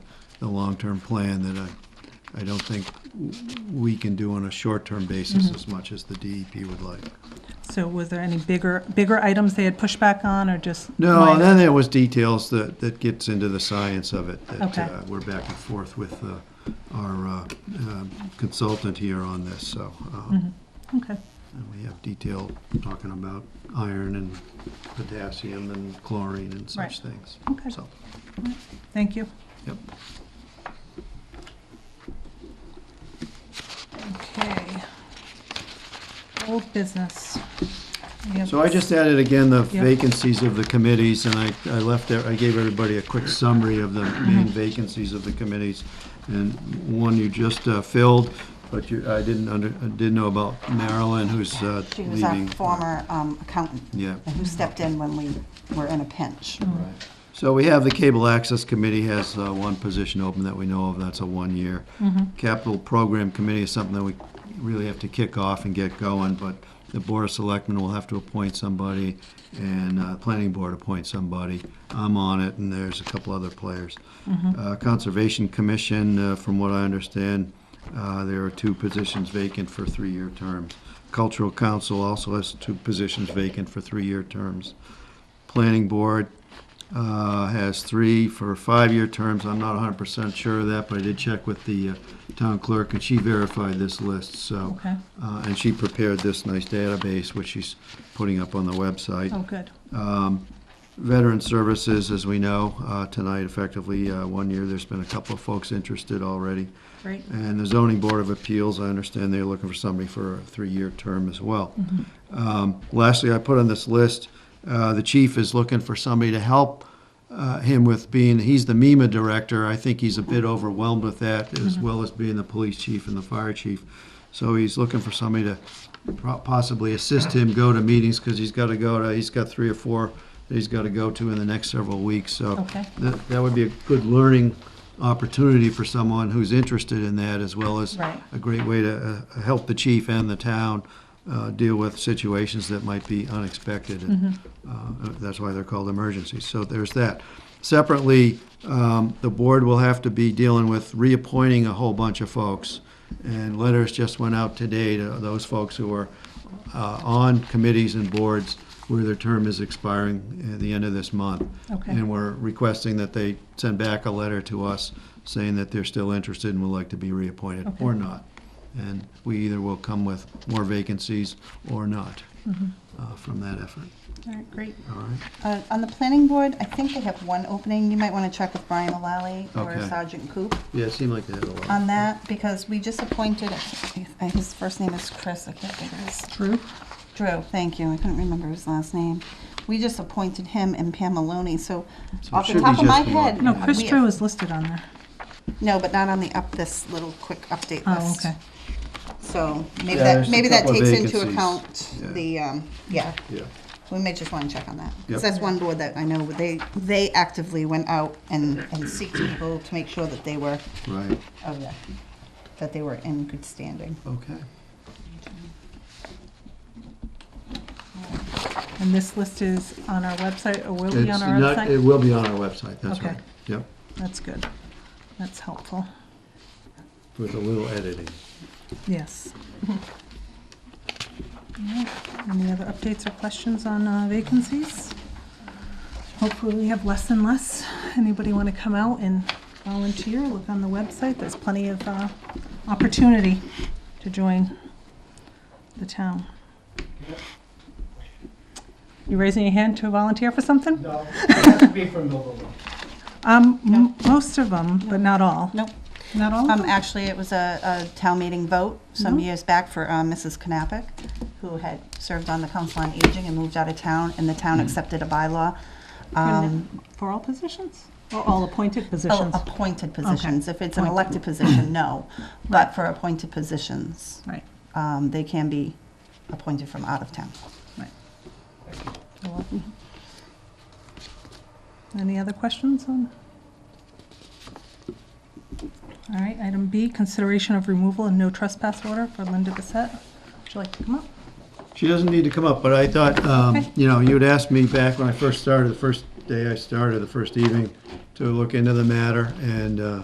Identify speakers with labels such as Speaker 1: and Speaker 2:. Speaker 1: a long-term plan that I, I don't think w- we can do on a short-term
Speaker 2: Mm-hmm.
Speaker 1: basis as much as the DEP would like.
Speaker 2: So was there any bigger, bigger items they had pushback on or just?
Speaker 1: No,
Speaker 2: minor?
Speaker 1: then there was details that, that gets into the science of it, that
Speaker 2: Okay.
Speaker 1: uh, we're back and forth with uh, our uh, um, consultant here on this, so. um,
Speaker 2: Mm-hmm. Okay,
Speaker 1: And we have detail talking about iron and potassium and chlorine and
Speaker 2: Right.
Speaker 1: such things.
Speaker 2: Okay.
Speaker 1: So,
Speaker 2: thank you.
Speaker 1: yep.
Speaker 2: Okay. Old business. We have-
Speaker 1: So I just added again the
Speaker 2: Yep.
Speaker 1: vacancies of the committees, and I, I left there, I gave everybody a quick summary of the main vacancies of the committees. And one you just uh, filled, but you, I didn't under, I didn't know about Marilyn, who's uh,
Speaker 3: She
Speaker 1: leaving.
Speaker 3: was our former um, accountant.
Speaker 1: Yeah.
Speaker 3: and Who stepped in when we were in a pinch.
Speaker 1: So we have the Cable Access Committee has uh, one position open that we know of, that's a one-year. Capital Program Committee is something that we really have to kick off and get going, but the Board of Selectmen will have to appoint somebody, and uh, Planning Board appoint somebody. I'm on it, and there's a couple other players. Uh, Conservation Commission, uh, from what I understand, uh, there are two positions vacant for three-year terms. Cultural Council also has two positions vacant for three-year terms. Planning Board uh, has three for five-year terms. I'm not 100% sure of that, but I did check with the uh, town clerk, and she verified this list, so.
Speaker 2: Okay.
Speaker 1: uh, And she prepared this nice database, which she's putting up on the website.
Speaker 2: Oh, good.
Speaker 1: Veteran Services, as we know, uh, tonight effectively, uh, one year, there's been a couple of folks interested already.
Speaker 2: Great.
Speaker 1: And the zoning board of appeals, I understand they're looking for somebody for a three-year term as well. Um, Lastly, I put on this list, uh, the chief is looking for somebody to help uh, him with being, he's the MEMA director. I think he's a bit overwhelmed with that, as well as being the police chief and the fire chief. So he's looking for somebody to pro- possibly assist him go to meetings, because he's got to go to, he's got three or four that he's got to go to in the next several weeks, so.
Speaker 2: Okay.
Speaker 1: That, that would be a good learning opportunity for someone who's interested in that, as well as
Speaker 2: Right.
Speaker 1: a great way to uh, help the chief and the town uh, deal with situations that might be unexpected. and,
Speaker 2: Mm-hmm.
Speaker 1: uh, That's why they're called emergencies. So there's that. Separately, um, the board will have to be dealing with reappointing a whole bunch of folks. And letters just went out today to those folks who are uh, on committees and boards where their term is expiring at the end of this month.
Speaker 2: Okay.
Speaker 1: And we're requesting that they send back a letter to us saying that they're still interested and would like to be reappointed
Speaker 2: Okay.
Speaker 1: or not. And we either will come with more vacancies or not
Speaker 2: Mm-hmm.
Speaker 1: uh, from that effort,
Speaker 2: All right, great.
Speaker 1: all right?
Speaker 3: Uh, On the planning board, I think they have one opening. You might want to check with Brian O'Lally or
Speaker 1: Okay.
Speaker 3: Sergeant Coop
Speaker 1: Yeah, it seemed like they had a lot.
Speaker 2: Um,
Speaker 3: on that, because we just appointed, I- his first name is Chris, I can't think of his.
Speaker 2: Drew?
Speaker 3: Drew, thank you. I couldn't remember his last name. We just appointed him and Pam Maloney, so
Speaker 1: So it
Speaker 3: off
Speaker 1: should
Speaker 3: the
Speaker 1: be
Speaker 3: top of my
Speaker 1: just the one.
Speaker 3: head.
Speaker 2: No, Chris
Speaker 3: we-
Speaker 2: Drew is listed on there.
Speaker 3: No, but not on the up, this little quick update
Speaker 2: Oh,
Speaker 3: list.
Speaker 2: okay.
Speaker 3: So maybe
Speaker 1: Yeah,
Speaker 3: that,
Speaker 1: there's a
Speaker 3: maybe that
Speaker 1: couple of
Speaker 3: takes into
Speaker 1: vacancies.
Speaker 3: account
Speaker 1: Yeah.
Speaker 3: the, um, yeah,
Speaker 1: Yeah,
Speaker 3: we may just want to check on that.
Speaker 1: Yep.
Speaker 3: Because that's one board that I know, they, they actively went out and, and seeked people to make sure that they were,
Speaker 1: right,
Speaker 3: of the- that they were in good standing.
Speaker 1: okay.
Speaker 2: And this list is on our website or will be
Speaker 1: It's
Speaker 2: on our
Speaker 1: not, it
Speaker 2: website?
Speaker 1: will be on our website, that's
Speaker 2: Okay.
Speaker 1: right. Yep,
Speaker 2: That's good. That's helpful.
Speaker 1: with a little editing.
Speaker 2: Yes. All right, Any other updates or questions on uh, vacancies? Hopefully, we have less and less. Anybody want to come out and volunteer? Look on the website. There's plenty of uh, opportunity to join the town. You raising your hand to volunteer for something?
Speaker 4: No, it has to be from Millville.
Speaker 2: Um, m- most of them, but not all.
Speaker 3: Nope.
Speaker 2: Not all?
Speaker 3: Um, actually, it was a, a town meeting vote some
Speaker 2: Mhm.
Speaker 3: years back for um, Mrs. Knappich, who had served on the Council on Aging and moved out of town, and the town
Speaker 1: Mm.
Speaker 3: accepted a bylaw. Um,
Speaker 2: For all positions? Or all appointed
Speaker 3: oh,
Speaker 2: positions?
Speaker 3: appointed positions. If it's an
Speaker 2: Appointed.
Speaker 3: elected position, no. But for appointed positions,
Speaker 2: Right,
Speaker 3: um, they can be appointed from out of town.
Speaker 2: right. You're welcome. Any other questions on? All right, item B, consideration of removal and no trespass order for Linda Bissett. Would you like to come up?
Speaker 1: She doesn't need to come up, but I thought, um,
Speaker 2: Okay.
Speaker 1: you know, you'd asked me back when I first started, the first day I started, the first evening, to look into the matter, and, uh,